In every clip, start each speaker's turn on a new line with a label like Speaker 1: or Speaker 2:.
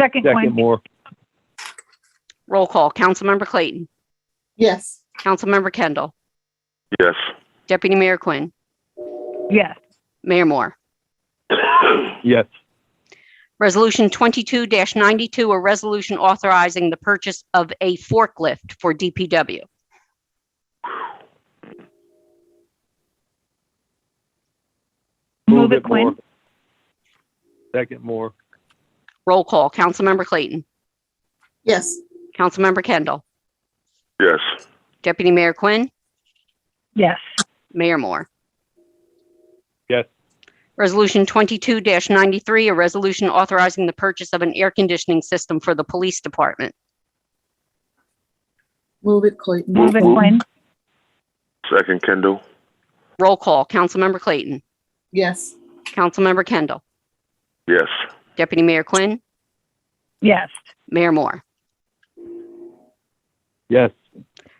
Speaker 1: Second
Speaker 2: Second
Speaker 1: Quinn.
Speaker 2: Moore,
Speaker 3: Roll call. Councilmember Clayton.
Speaker 4: yes,
Speaker 3: Councilmember Kendall.
Speaker 5: Yes.
Speaker 3: Deputy Mayor Quinn.
Speaker 1: Yes.
Speaker 3: Mayor Moore.
Speaker 2: yes.
Speaker 3: Resolution 22-92, a resolution authorizing the purchase of a forklift for DPW.
Speaker 1: Move it Quinn.
Speaker 2: Moore. Second Moore,
Speaker 3: Roll call. Councilmember Clayton.
Speaker 4: yes,
Speaker 3: Councilmember Kendall.
Speaker 5: Yes.
Speaker 3: Deputy Mayor Quinn.
Speaker 1: Yes.
Speaker 3: Mayor Moore.
Speaker 2: Yes.
Speaker 3: Resolution 22-93, a resolution authorizing the purchase of an air conditioning system for the police department.
Speaker 4: move it Clayton,
Speaker 1: Move it
Speaker 5: Move-
Speaker 1: Quinn.
Speaker 5: Second Kindle.
Speaker 3: Roll call. Councilmember Clayton.
Speaker 4: yes,
Speaker 3: Councilmember Kendall.
Speaker 5: Yes.
Speaker 3: Deputy Mayor Quinn.
Speaker 1: Yes.
Speaker 3: Mayor Moore.
Speaker 2: yes.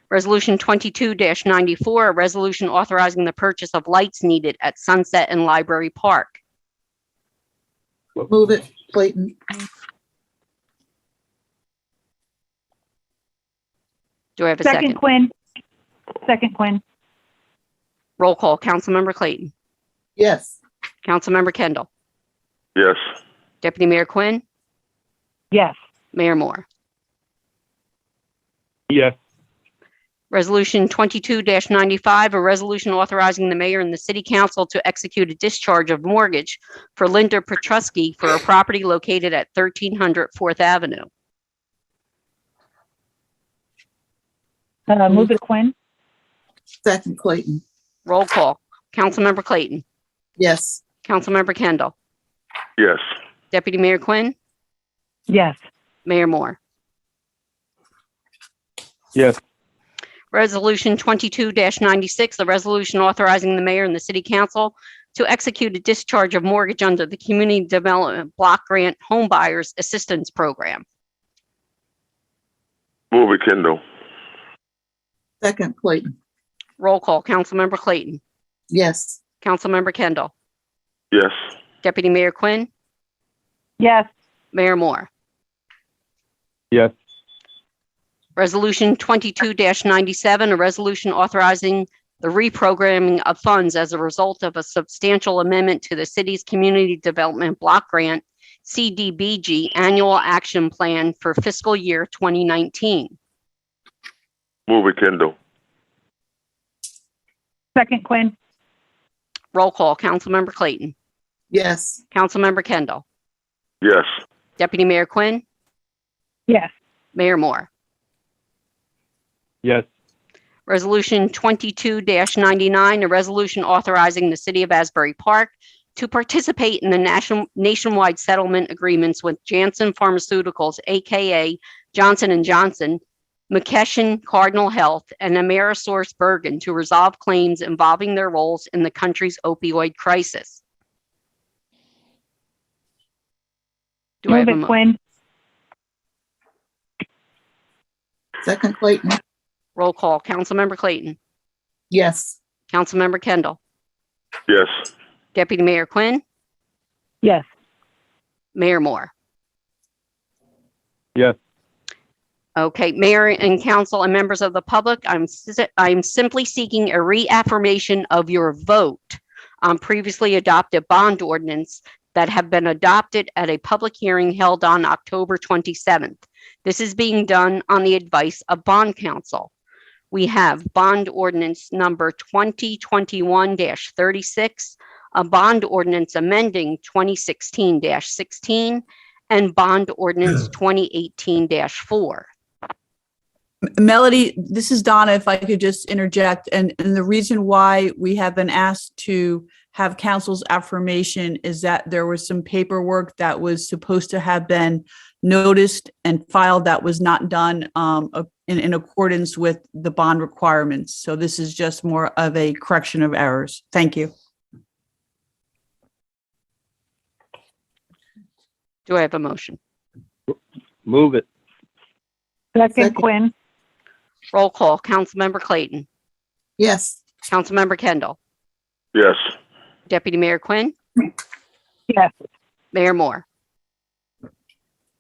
Speaker 3: Resolution 22-94, a resolution authorizing the purchase of lights needed at Sunset and Library Park.
Speaker 4: move it Clayton,
Speaker 3: Do I have a
Speaker 1: Second
Speaker 3: second?
Speaker 1: Quinn. Second Quinn.
Speaker 3: Roll call. Councilmember Clayton.
Speaker 4: yes,
Speaker 3: Councilmember Kendall.
Speaker 5: Yes.
Speaker 3: Deputy Mayor Quinn.
Speaker 1: Yes.
Speaker 3: Mayor Moore.
Speaker 2: Yes,
Speaker 3: Resolution 22-95, a resolution authorizing the mayor and the city council to execute a discharge of mortgage for Linda Petrusky for a property located at 1300 Fourth Avenue.
Speaker 1: Uh, move it Quinn.
Speaker 4: second Clayton,
Speaker 3: Roll call. Councilmember Clayton.
Speaker 4: yes,
Speaker 3: Councilmember Kendall.
Speaker 5: Yes.
Speaker 3: Deputy Mayor Quinn.
Speaker 1: Yes.
Speaker 3: Mayor Moore.
Speaker 2: yes.
Speaker 3: Resolution 22-96, the resolution authorizing the mayor and the city council to execute a discharge of mortgage under the Community Development Block Grant Home Buyers Assistance Program.
Speaker 5: Move it Kindle.
Speaker 4: second Clayton,
Speaker 3: Roll call, Councilmember Clayton,
Speaker 4: yes,
Speaker 3: Councilmember Kendall,
Speaker 5: Yes.
Speaker 3: Deputy Mayor Quinn,
Speaker 1: Yes.
Speaker 3: Mayor Moore.
Speaker 2: Yes.
Speaker 3: Resolution 22-97, a resolution authorizing the reprogramming of funds as a result of a substantial amendment to the city's Community Development Block Grant, CDBG Annual Action Plan for fiscal year 2019.
Speaker 5: Move it Kindle.
Speaker 1: Second Quinn.
Speaker 3: Roll call, Councilmember Clayton,
Speaker 4: yes,
Speaker 3: Councilmember Kendall,
Speaker 5: Yes.
Speaker 3: Deputy Mayor Quinn,
Speaker 1: Yes.
Speaker 3: Mayor Moore.
Speaker 2: Yes,
Speaker 3: Resolution 22-99, a resolution authorizing the City of Asbury Park to participate in the nation- nationwide settlement agreements with Janssen Pharmaceuticals, AKA Johnson & Johnson, McKesson Cardinal Health, and Amerisource Bergen to resolve claims involving their roles in the country's opioid crisis. Do
Speaker 1: Move
Speaker 3: I have a
Speaker 1: it
Speaker 3: mo-
Speaker 1: Quinn.
Speaker 4: second Clayton,
Speaker 3: roll call? Councilmember Clayton.
Speaker 4: yes,
Speaker 3: Councilmember Kendall.
Speaker 5: Yes.
Speaker 3: Deputy Mayor Quinn.
Speaker 1: Yes.
Speaker 3: Mayor Moore.
Speaker 2: Yes.
Speaker 3: Okay, Mayor and council and members of the public, I'm, si- I'm simply seeking a reaffirmation of your vote on previously adopted bond ordinance that have been adopted at a public hearing held on October 27th. This is being done on the advice of bond council. We have bond ordinance number 2021-36, a bond ordinance amending 2016-16 and bond ordinance 2018-4.
Speaker 6: Melody, this is Donna, if I could just interject, and, and the reason why we have been asked to have council's affirmation is that there was some paperwork that was supposed to have been noticed and filed that was not done um, a- in, in accordance with the bond requirements. So this is just more of a correction of errors. Thank you.
Speaker 3: Do I have a motion?
Speaker 2: move it.
Speaker 1: Second
Speaker 4: Second.
Speaker 1: Quinn.
Speaker 3: Roll call, Councilmember Clayton,
Speaker 4: yes,
Speaker 3: Councilmember Kendall,
Speaker 5: Yes.
Speaker 3: Deputy Mayor Quinn,
Speaker 1: Yes.
Speaker 3: Mayor Moore.